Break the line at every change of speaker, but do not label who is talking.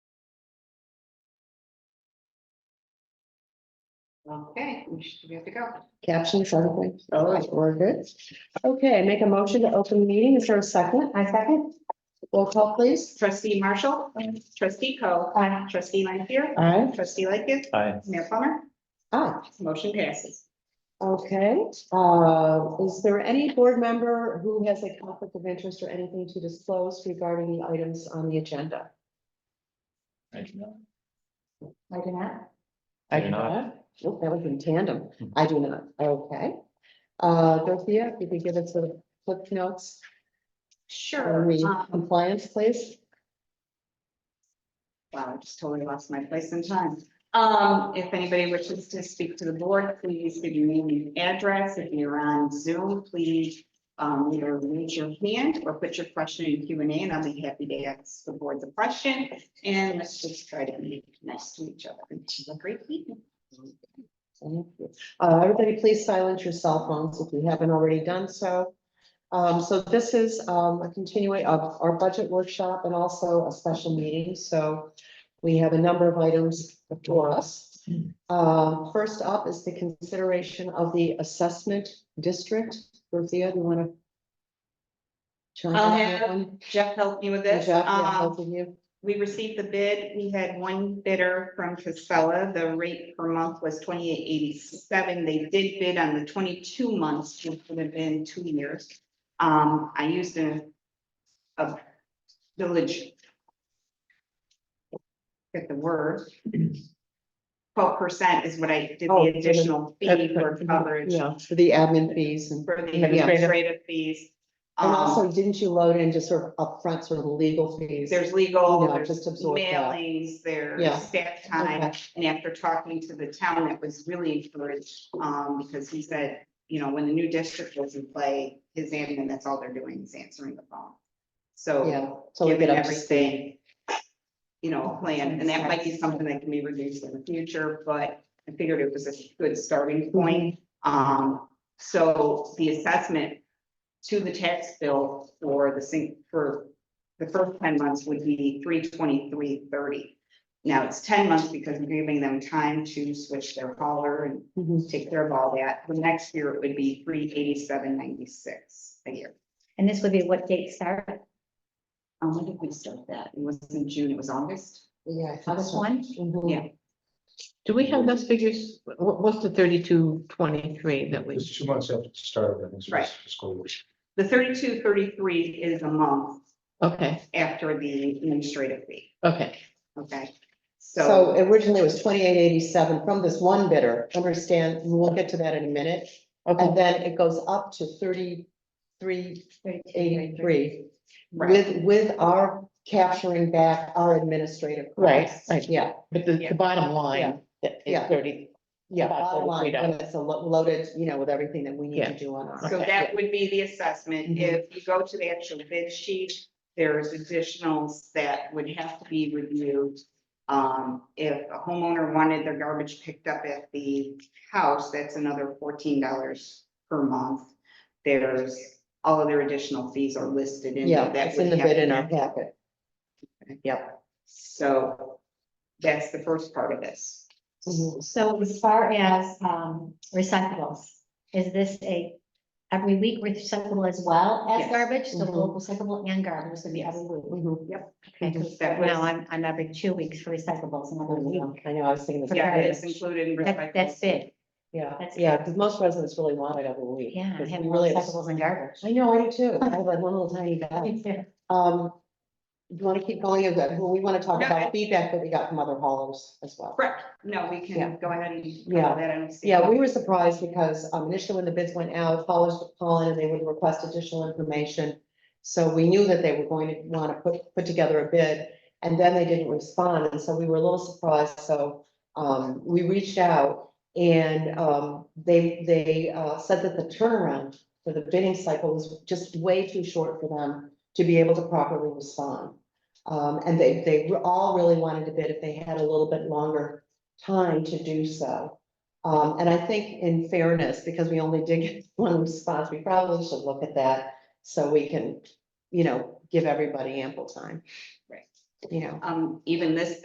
Okay, we should we have to go.
Caption something.
All right.
We're good. Okay, make a motion to open the meeting. Is there a second? I second. Roll call, please.
Trustee Marshall, trustee Co,
Aye.
trustee Lanfair,
Aye.
trustee Lightgev,
Aye.
Mayor Plummer,
Ah,
motion passes.
okay. Uh, is there any board member who has a conflict of interest or anything to disclose regarding the items on the agenda?
I do not.
I
I do
do
not.
not. Nope, that was in tandem.
Hmm.
I do not. Okay. Uh, Dorothea, if you could give us the flip notes
Sure.
for the
um,
compliance, please.
Wow, I just totally lost my place in time. Um, if anybody wishes to speak to the board, please give your name and address. If you're on Zoom, please um, either raise your hand or put your question in Q and A, and I'll be happy to ask the board the question. And let's just try to be nice to each other. Have a great evening.
Thank you. Uh, everybody, please silence your cell phones if you haven't already done so. Um, so this is, um, a continuing of our budget workshop and also a special meeting, so we have a number of items before us. Uh, first up is the consideration of the assessment district. Dorothea, do you wanna? chime in on that
have
one?
Jeff helped me with
Jeff,
this.
yeah,
Um,
both of you.
We received the bid, we had one bidder from Casella, the rate per month was twenty-eight eighty-seven, they did bid on the twenty-two months, which would have been two years. Um, I used a, a village. Get the word. Twelve percent is what I did
Oh,
the additional fee for coverage,
Yeah, for the admin fees and.
for the
Yeah.
administrative fees.
And
Um,
also, didn't you load in just sort of upfront sort of legal fees?
There's legal,
Yeah,
there's
just absorb that.
mailings,
Yeah.
there's staff time.
Okay.
And after talking to the town, it was really encouraged, um, because he said, you know, when the new district was in play, his admin, that's all they're doing is answering the phone.
Yeah,
So
so we
giving
get up to speed.
everything, you know, a plan, and that might be something that can be reduced in the future, but I figured it was a good starting point. Um, so the assessment to the tax bill for the sing, for the first ten months would be three twenty-three thirty. Now it's ten months because we're giving them time to switch their hauler and
Mhm.
take care of all that. The next year it would be three eighty-seven ninety-six a year.
And this would be what date start?
Um, when did we start that? It wasn't in June, it was August.
Yeah. I think
August
so.
one?
Mhm.
Yeah.
Do we have those figures? What, what's the thirty-two twenty-three that we?
It's two months after the start of the next
Right.
fiscal year.
The thirty-two thirty-three is a month
Okay,
after the administrative fee,
okay.
okay?
So
So,
originally it was twenty-eight eighty-seven from this one bidder, understand, and we'll get to that in a minute. And then it goes up to thirty-three eighty-three
right,
with, with our capturing back our administrative.
Right,
costs.
right.
Yeah,
But the,
Yeah.
the bottom
Yeah.
line that is
Yeah.
thirty,
yeah,
About
bottom line,
$33.
when it's a lo- loaded, you know, with everything that we need to
Yeah.
do on our.
so that would be the assessment.
Mhm.
If you go to the actual bid sheet, there's additionals that would have to be reviewed. Um, if a homeowner wanted their garbage picked up at the house, that's another fourteen dollars per month. There's, all of their additional fees are listed in. there.
Yeah,
That
it's in
would
the
have
bid
to
in
be-
our packet. Yep.
So that's the first part of this.
Mm-hmm.
So as far as um recyclables, is this a every week recyclable as well as
Yes. Mm-hmm.
garbage? So
Mhm.
local recyclable and garbage would be every week.
Mhm.
Okay, 'cause
That was-
Now I'm I'm every two weeks for recyclables and every week.
Mm-hmm. I know, I was thinking. the
Yeah,
Okay.
it's included in.
That that's
recyclables.
big.
Yeah,
That's
yeah,
good.
because most residents really want it every week.
Yeah, I
'cause
have
we
more
really-
recyclables and garbage.
I know, I do too. I have like one little tiny bag. Um, you want to keep going? Is that- well, We want to talk
No, I-
about feedback that we got from other haulers as well.
Correct, no, we
Yeah.
can go ahead and.
Yeah.
That I don't see.
Yeah, we were surprised because um, initially when the bids went out, haulers would call in and they would request additional information. So we knew that they were going to want to put, put together a bid, and then they didn't respond, and so we were a little surprised, so um, we reached out and um, they, they uh, said that the turnaround for the bidding cycle was just way too short for them to be able to properly respond. Um, and they, they were- all really wanted to bid if they had a little bit longer time to do so. Um, and I think in fairness, because we only did get one response, we probably should look at that so we can, you know, give everybody ample time.
Right.
You know.
Um, even this